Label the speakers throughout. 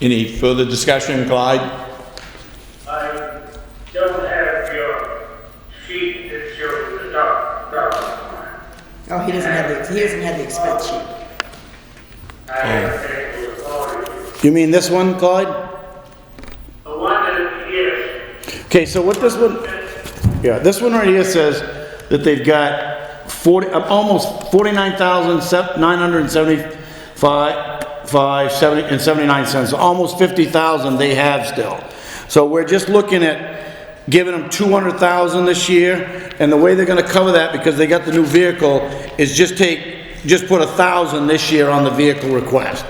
Speaker 1: Any further discussion, Clyde?
Speaker 2: I don't have your sheet that shows the top, top.
Speaker 3: Oh, he doesn't have the, he doesn't have the expense sheet.
Speaker 2: I have to take the authority.
Speaker 4: You mean this one, Clyde?
Speaker 2: The one that, yes,
Speaker 4: Okay, so what this one, yeah, this one right here says that they've got 40, uh, almost 49,975, five, 70, and 79 cents, almost 50,000 they have still. So we're just looking at giving them 200,000 this year, and the way they're gonna cover that, because they got the new vehicle, is just take, just put a 1,000 this year on the vehicle request.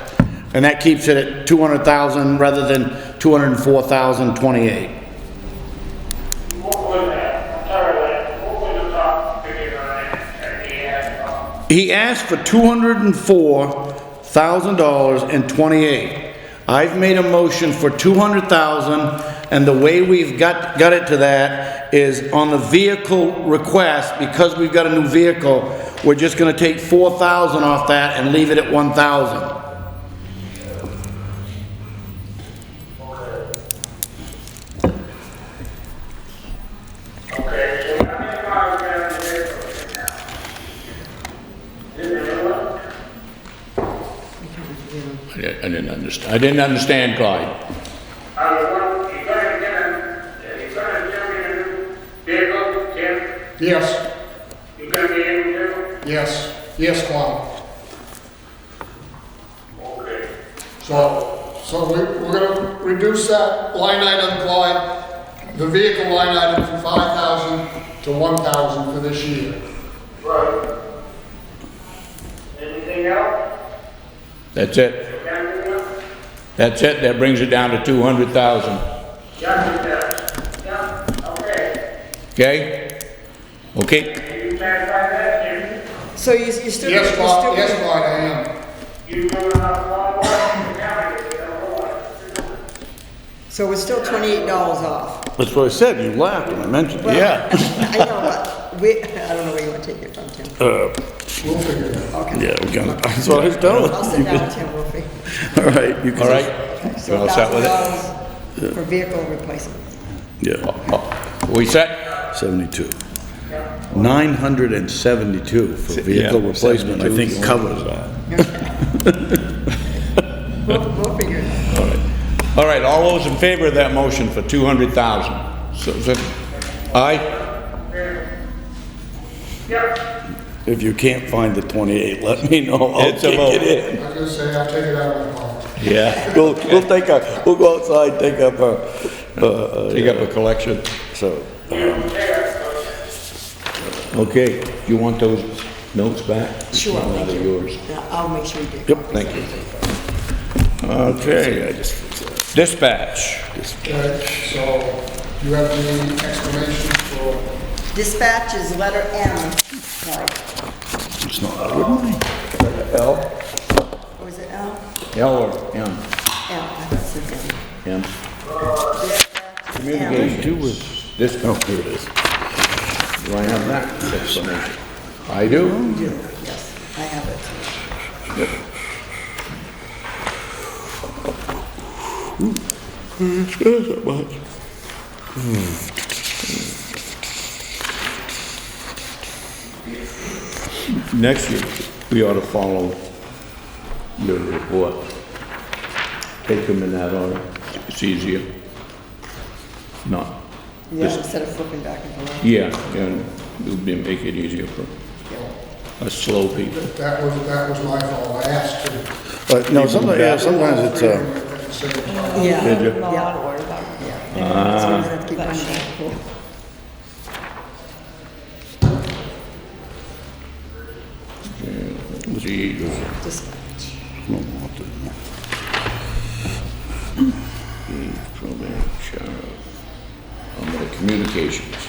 Speaker 4: And that keeps it at 200,000 rather than 204,028.
Speaker 2: what was that? Sorry, that, what was the top figure on it at the end? of-
Speaker 4: He asked for two hundred and four thousand dollars and twenty-eight. I've made a motion for two hundred thousand, and the way we've got, got it to that is on the vehicle request, because we've got a new vehicle, we're just gonna take four thousand off that and leave it at one thousand.
Speaker 2: Okay, so how many cars are down there right now? Is there anyone?
Speaker 1: I di- I didn't understand, I didn't understand, Clyde.
Speaker 2: I was wondering, you gonna get a, you gonna give me a new vehicle, Tim?
Speaker 5: Yes,
Speaker 2: You gonna be able to?
Speaker 5: yes, yes, Clyde.
Speaker 2: Okay.
Speaker 5: So, so we, we're gonna reduce that line item, Clyde, the vehicle line item from five thousand to one thousand for this year.
Speaker 2: Right. Anything else?
Speaker 1: That's it,
Speaker 2: Gentlemen?
Speaker 1: that's it, that brings it down to 200,000,
Speaker 2: Gentlemen, yeah, okay.
Speaker 1: okay? Okay,
Speaker 2: Are you satisfied that,
Speaker 3: So you, you're still.
Speaker 5: Yes,
Speaker 3: you're still-
Speaker 5: Clyde, yes, Clyde, I am.
Speaker 2: Jim? You doing enough law work in the county, you know what?
Speaker 3: So we're still twenty-eight dollars off.
Speaker 4: That's what I said, you laughed when I mentioned it.
Speaker 3: Well,
Speaker 1: yeah,
Speaker 3: I know, but we, I don't know where you wanna take it from, Tim.
Speaker 5: We'll figure it out.
Speaker 3: Okay.
Speaker 4: Yeah, we got, that's what I was telling
Speaker 3: I'll sit down, Tim, we'll figure.
Speaker 4: All right, you can.
Speaker 1: all right.
Speaker 3: Okay,
Speaker 1: You
Speaker 3: So
Speaker 1: all set with it?
Speaker 3: $1,000 For vehicle replacement.
Speaker 4: Yeah,
Speaker 1: We set?
Speaker 4: seventy-two. Nine hundred and seventy-two for vehicle
Speaker 1: Yeah,
Speaker 4: replacement, I think covers that.
Speaker 3: We'll, we'll figure it out.
Speaker 1: All right, all those in favor of that motion for 200,000? So, so, aye?
Speaker 2: Yep,
Speaker 4: If you can't find the 28, let me know. I'll
Speaker 1: It's a
Speaker 4: kick
Speaker 1: vote.
Speaker 4: it
Speaker 5: I was gonna say, I'll take it out of the Clyde.
Speaker 1: Yeah.
Speaker 4: in. We'll, we'll take our, we'll go outside, take up our, uh, uh,
Speaker 1: Take up a collection.
Speaker 4: so.
Speaker 2: you there,
Speaker 1: Okay, you want those notes back?
Speaker 3: Sure,
Speaker 1: Now
Speaker 3: thank
Speaker 1: they're
Speaker 3: you.
Speaker 1: yours.
Speaker 3: Yeah, I'll make sure you get.
Speaker 4: Yep,
Speaker 3: copies
Speaker 1: thank
Speaker 3: of
Speaker 1: you.
Speaker 3: it.
Speaker 1: Okay, dispatch.
Speaker 5: Okay, so you have any explanations for
Speaker 3: Dispatch is letter M, like,
Speaker 4: It's not, I wouldn't.
Speaker 1: L?
Speaker 3: what was it L?
Speaker 1: L or M?
Speaker 3: L, I thought it said M.
Speaker 1: M.
Speaker 3: Dispatch is M.
Speaker 1: Communications. This, oh, here it is. Do I have that explanation? I do.
Speaker 3: Yes, I have it.
Speaker 1: Next year, we ought to follow your report. Take them in that order. It's easier. Not,
Speaker 3: Yeah,
Speaker 1: Yes.
Speaker 3: instead of flipping back and forth.
Speaker 1: yeah, and it'll be- make it easier for us slow people.
Speaker 5: That was, that was my fault, I asked to.
Speaker 4: But no, sometimes, yeah, sometimes it's, uh,
Speaker 5: uh.
Speaker 3: Yeah.
Speaker 1: Did you? Ah.
Speaker 3: Yeah. Yeah. So you just have to keep going back and forth.
Speaker 1: Gee,
Speaker 3: Dispatch.
Speaker 1: program, sheriff. I'm gonna communications.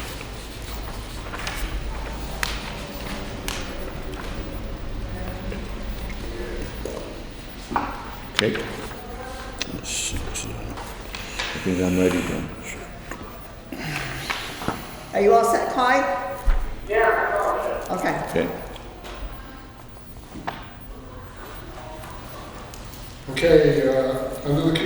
Speaker 1: Okay. I think I'm ready then.
Speaker 3: Are you all set, Clyde?
Speaker 2: yeah, I know.
Speaker 3: Okay.
Speaker 1: Okay.
Speaker 5: Okay, uh, under the community